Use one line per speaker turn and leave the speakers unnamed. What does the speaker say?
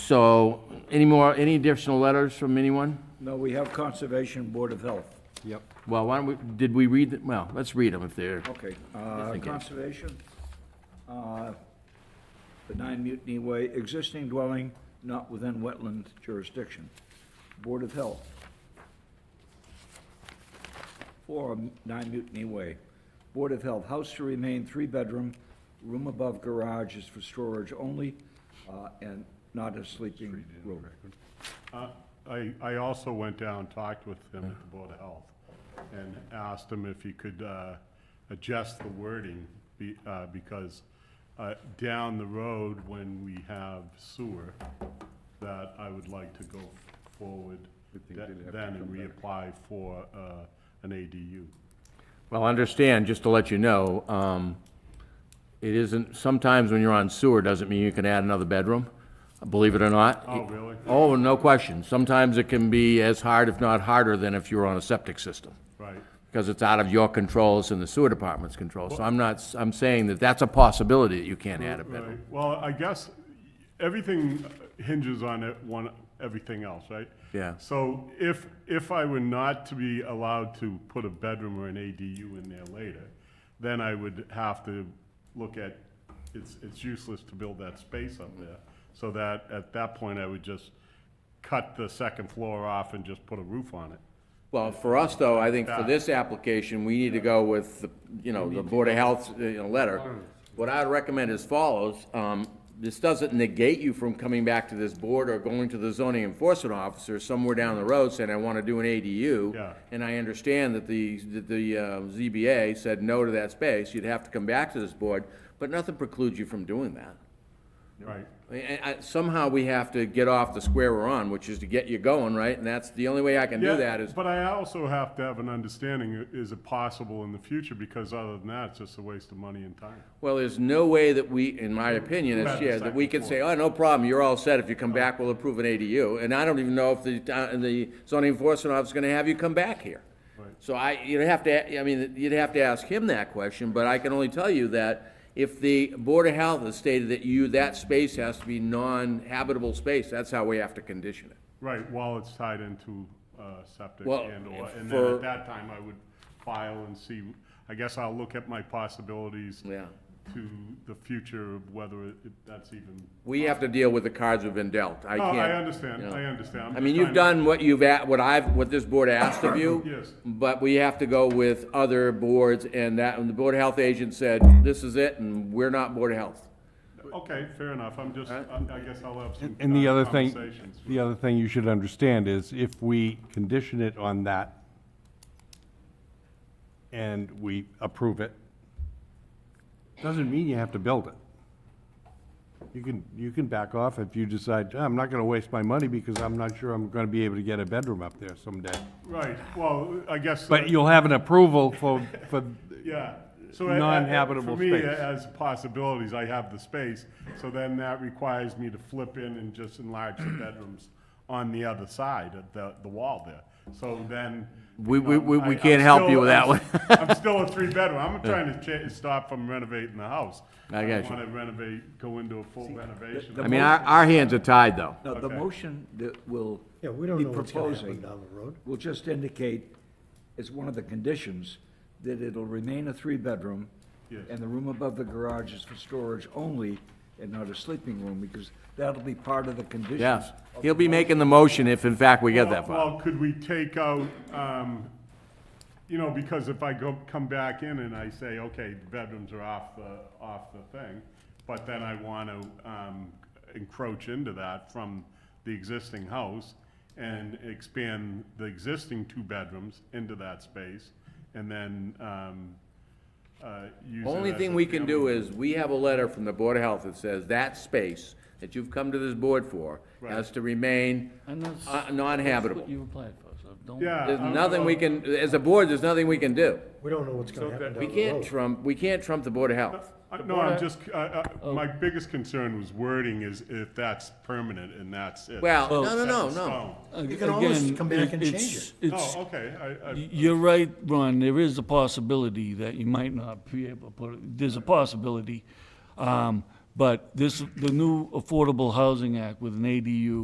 So, any more, any additional letters from anyone?
No, we have Conservation Board of Health.
Yep.
Well, why don't we, did we read, the- well, let's read them if they're,
Okay, uh,
thank you.
conservation, uh, benign mutiny way, existing dwelling not within wetland jurisdiction. Board of Health. Four, nine mutiny way. Board of Health, house to remain three-bedroom, room above garage is for storage only, uh, and not a sleeping room.
Uh, I, I also went down, talked with him at the Board of Health, and asked him if he could uh, adjust the wording, be- uh, because uh, down the road, when we have sewer, that I would like to go forward th- then and reapply for uh, an ADU.
well, understand, just to let you know, um, it isn't, sometimes when you're on sewer, doesn't mean you can add another bedroom, believe it or not.
Oh, really?
Oh, no question. Sometimes it can be as hard, if not harder, than if you're on a septic system,
Right,
because it's out of your control, it's in the sewer department's control. So I'm not, s- I'm saying that that's a possibility that you can't add a bedroom.
right. Well, I guess everything hinges on it, one, everything else, right?
Yeah.
So if, if I were not to be allowed to put a bedroom or an ADU in there later, then I would have to look at, it's, it's useless to build that space up there. So that, at that point, I would just cut the second floor off and just put a roof on it.
Well, for us, though, I think for this application, we need to go with, the you know, the Board of Health's, uh, you know, letter. What I'd recommend is follows, um, this doesn't negate you from coming back to this board or going to the zoning enforcement officer somewhere down the road saying, I want to do an ADU.
Yeah.
And I understand that the, that the uh, ZBA said no to that space, you'd have to come back to this board, but nothing precludes you from doing that.
Right,
I- I- I- Somehow we have to get off the square we're on, which is to get you going, right? And that's, the only way I can do
Yeah,
that is
But I also have to have an understanding, i- is it possible in the future? Because other than that, it's just a waste of money and time.
Well, there's no way that we, in my opinion, as
Right,
chair, that we can say, oh, no problem, you're all set, if you come back, we'll approve an ADU, and I don't even know if the, town- the zoning enforcement officer's gonna have you come back here.
Right.
So I, you'd have to, I mean, you'd have to ask him that question, but I can only tell you that if the Board of Health has stated that you, that space has to be non-habitable space, that's how we have to condition it.
Right, while it's tied into uh, septic
Well,
and or,
if
and then
for-
at that time, I would file and see, I guess I'll look at my possibilities
Yeah.
to the future of whether it- that's even,
We have to deal with the cards we've been dealt, I
no,
can't.
I
you
understand,
know.
I understand. I'm
I mean,
just
you've
trying
done what you've, at- what I've, what this board asked of you.
Yes.
But we have to go with other boards, and that, and the Board of Health agent said, this is it, and we're not Board of Health.
to- Okay, fair enough, I'm just, I I guess I'll have some
And the
uh,
other thing,
conversations.
the other thing you should understand is if we condition it on that and we approve it, doesn't mean you have to build it. You can, you can back off if you decide, "Ah, I'm not gonna waste my money because I'm not sure I'm gonna be able to get a bedroom up there someday.
Right, well, I guess. uh,
But you'll have an approval for, for,
Yeah. So I- I-
Non-habitable
For me,
space.
as possibilities, I have the space, so then that requires me to flip in and just enlarge the bedrooms on the other side of the, the wall there. So then.
We-
you know,
we- we- we
I- I'm
can't help you
still-
with that
I'm
one.
s- I'm still a three-bedroom. I'm trying to cha- stop from renovating the house.
I got you.
want to renovate, go into a full renovation.
I mean, our, our hands are tied, though.
Now, the
Okay.
motion that will be
Yeah, we don't know what's gonna
proposing
happen down the road.
will just indicate, as one of the conditions, that it'll remain a three-bedroom,
Yes.
and the room above the garage is for storage only, and not a sleeping room, because that'll be part of the conditions.
Yes. He'll be making the motion if, in fact, we get that
Well-
far.
Well, could we take out, um, you know, because if I go, come back in and I say, okay, the bedrooms are off the, off the thing, but then I want to, um, encroach into that from the existing house and expand the existing two bedrooms into that space, and then, um, uh, use it
Only
as
thing
a
we can do
family-
is, we have a letter from the Board of Health that says that space that you've come to this board for has to remain
And that's.
uh, non-habitable.
That's what you applied for, so don't.
Yeah.
There's
I'm-
nothing we can, as a board, there's nothing we can do.
We don't know what's gonna happen
We
down the
can't
road.
trump, we can't trump the Board of Oh. Health.
Uh, No, I'm just, uh, uh, my biggest concern was wording is if that's permanent and that's it.
Well, no,
Set
no,
in
no, no.
stone.
You can always come back and change
it. It's,
Oh, okay, I, I,
you're right, Ron, there is a possibility that you might not be able to put, it- there's a possibility. Um, But this, the new Affordable Housing Act with an ADU